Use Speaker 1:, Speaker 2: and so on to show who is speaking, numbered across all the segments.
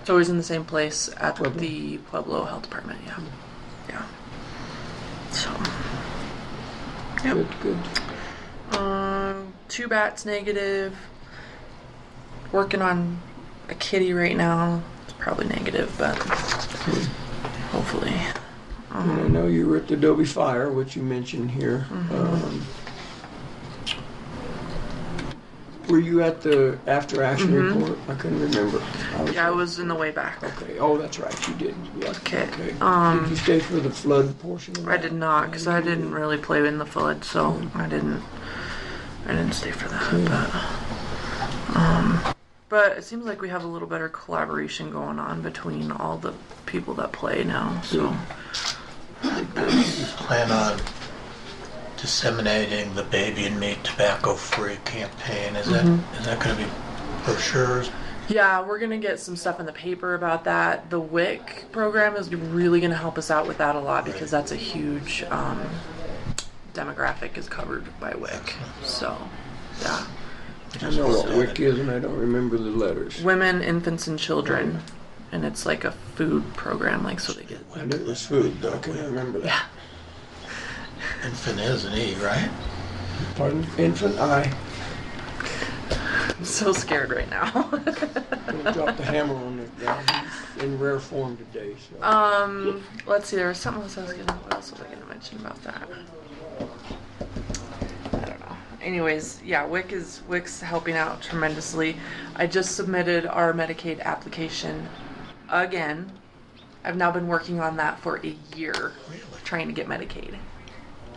Speaker 1: It's always in the same place at
Speaker 2: Pueblo.
Speaker 1: the Pueblo Health Department. Yeah, yeah. So,
Speaker 2: Good, good.
Speaker 1: um, two bats negative. Working on a kitty right now. It's probably negative, but hopefully.
Speaker 2: And I know you were at the Adobe Fire, which you mentioned here.
Speaker 1: Mm-hmm.
Speaker 2: Um, Were you at the after action report? I couldn't remember.
Speaker 1: Mm-hmm. Yeah, I was in the way back.
Speaker 2: Okay, oh, that's right, you did. Yeah,
Speaker 1: Okay, um,
Speaker 2: Did you stay for the flood portion of
Speaker 1: I
Speaker 2: that?
Speaker 1: did not, cause I didn't really play in the flood, so I didn't. I didn't stay for that, but. Um, but it seems like we have a little better collaboration going on between all the people that play now. So
Speaker 3: plan on disseminating the baby and me tobacco free campaign. Is
Speaker 1: Mm-hmm.
Speaker 3: that is that going to be brochures?
Speaker 1: yeah, we're gonna get some stuff in the paper about that. The WIC program is really gonna help us out with that a lot because that's a huge um, demographic is covered by WIC. So yeah,
Speaker 2: I know what WIC is, and I don't remember the letters.
Speaker 1: women, infants, and children, and it's like a food program, like so they get.
Speaker 2: I knew it was food, though, I couldn't remember that.
Speaker 3: Infant is an E, right?
Speaker 2: Pardon? Infant, I
Speaker 1: so scared right now.
Speaker 2: dropped the hammer on it, guy. He's in rare form today, so.
Speaker 1: um, let's see. There was something else I was gonna. What else was I gonna mention about that? I don't know. Anyways, yeah, WIC is WIC's helping out tremendously. I just submitted our Medicaid application again. I've now been working on that for a year, trying to get Medicaid.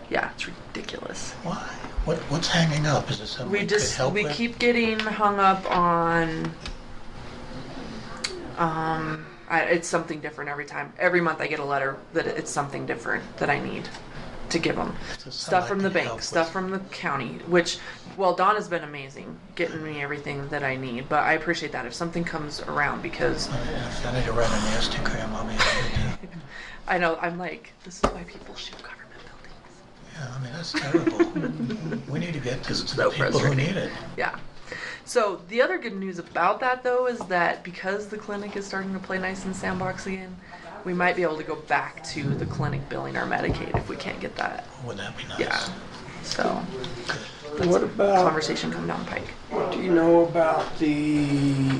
Speaker 1: Yeah, it's ridiculous.
Speaker 3: Why? What what's hanging up? Is it something
Speaker 1: we
Speaker 3: we could
Speaker 1: just
Speaker 3: help
Speaker 1: we
Speaker 3: with?
Speaker 1: keep getting hung up on um I, it's something different every time every month i get a letter that it's something different that i need to give them
Speaker 3: So some
Speaker 1: stuff
Speaker 3: I
Speaker 1: from the
Speaker 3: can
Speaker 1: bank
Speaker 3: help
Speaker 1: stuff
Speaker 3: with.
Speaker 1: from the county which well don has been amazing getting me everything that i need but i appreciate that if something comes around because
Speaker 3: If I need to write an Instagram, I'll be able to do.
Speaker 1: i know i'm like this is why people shoot government buildings
Speaker 3: Yeah, I mean that's terrible. we need to get this to
Speaker 1: so
Speaker 3: the people who
Speaker 1: frustrating.
Speaker 3: need it.
Speaker 1: Yeah. So the other good news about that though is that because the clinic is starting to play nice in sandbox again, we might be able to go back to the clinic billing our Medicaid if we can't get that.
Speaker 3: Wouldn't that be nice?
Speaker 1: Yeah. So
Speaker 2: What about,
Speaker 1: conversation come down pike.
Speaker 2: what do you know about the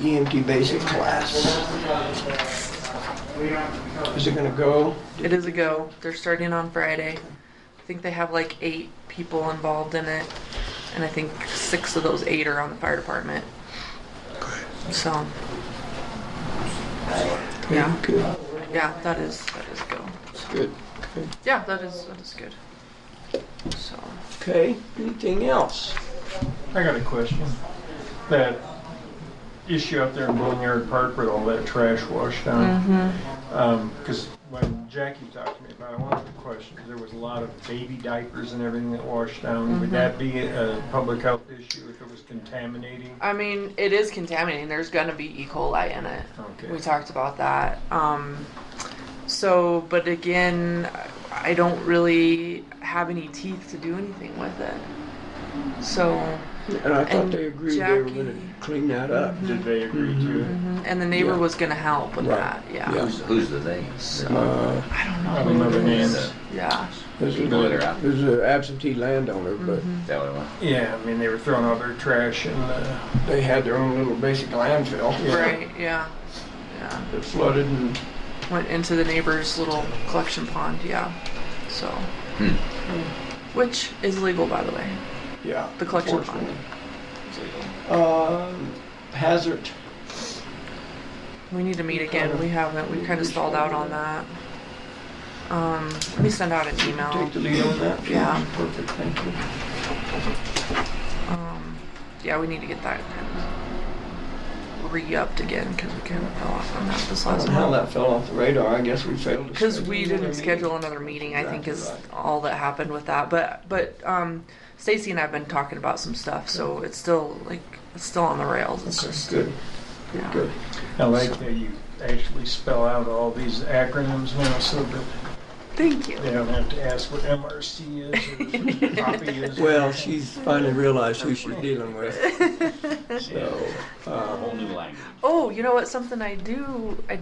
Speaker 2: EMT basic class? Is it gonna go?
Speaker 1: It is a go. They're starting on Friday. I think they have like eight people involved in it, and I think six of those eight are on the fire department.
Speaker 3: Great.
Speaker 1: So yeah,
Speaker 2: Good,
Speaker 1: yeah, that is that is a go.
Speaker 2: good, good.
Speaker 1: Yeah, that is that is good. So.
Speaker 2: Okay, anything else?
Speaker 4: I got a question. That issue out there in Bowling Yard Park with all that trash washed down. Because when Jackie talked to me about it, one of the questions, there was a lot of baby diapers and everything that washed down. Would that be a public health issue if it was contaminating?
Speaker 1: I mean, it is contaminating. There's gonna be E. coli in it.
Speaker 4: Okay.
Speaker 1: We talked about that. Um, so, but again, I don't really have any teeth to do anything with it. So,
Speaker 2: And I thought
Speaker 1: And
Speaker 2: they agreed they were
Speaker 1: Jackie-
Speaker 2: gonna clean that up.
Speaker 4: Did they agree to it?
Speaker 1: mm-hmm, and the neighbor
Speaker 2: Yeah.
Speaker 1: was gonna help with
Speaker 2: Right.
Speaker 1: that. Yeah.
Speaker 2: Yeah.
Speaker 5: Who's, who's the they?
Speaker 1: Mm-hmm.
Speaker 5: So,
Speaker 2: Uh,
Speaker 1: I don't
Speaker 4: I
Speaker 1: know.
Speaker 4: don't know the names.
Speaker 5: the,
Speaker 1: Yeah.
Speaker 2: There's a-
Speaker 5: Go there, Al.
Speaker 2: there's an absentee landowner, but
Speaker 1: Mm-hmm.
Speaker 5: that one.
Speaker 4: Yeah, I mean, they were throwing all their trash in the,
Speaker 2: they had their own little basic landfill.
Speaker 1: Right. Yeah. Yeah.
Speaker 2: It flooded and
Speaker 1: Went into the neighbor's little collection pond. Yeah. So,
Speaker 5: Hmm.
Speaker 1: which is legal, by the way.
Speaker 2: Yeah.
Speaker 1: The collection pond.
Speaker 2: unfortunately.
Speaker 1: It's legal.
Speaker 2: Um, Hazard,
Speaker 1: We need to meet again. We haven't. We kind of stalled out on that. Um, let me send out an email.
Speaker 2: take the lead on that.
Speaker 1: Yeah.
Speaker 2: Perfect, thank you.
Speaker 1: Um, yeah, we need to get that kind of re-upped again because we kind of fell off on that this
Speaker 2: I
Speaker 1: last
Speaker 2: don't know how
Speaker 1: month.
Speaker 2: that fell off the radar, I guess we failed to.
Speaker 1: Because
Speaker 2: schedule
Speaker 1: we
Speaker 2: another
Speaker 1: didn't
Speaker 2: meeting.
Speaker 1: schedule another meeting, I think is
Speaker 2: Exactly
Speaker 1: all that happened with that. But but um, Stacy and I've been talking about some stuff, so it's still like it's still on the rails. It's just
Speaker 2: Good,
Speaker 1: yeah.
Speaker 2: good.
Speaker 4: I like that you actually spell out all these acronyms now so that
Speaker 1: Thank you.
Speaker 4: They don't have to ask what MRC is or what copy is.
Speaker 2: Well, she's finally realized who she's dealing with. So, um,
Speaker 5: whole new language.
Speaker 1: Oh, you know what? Something I do I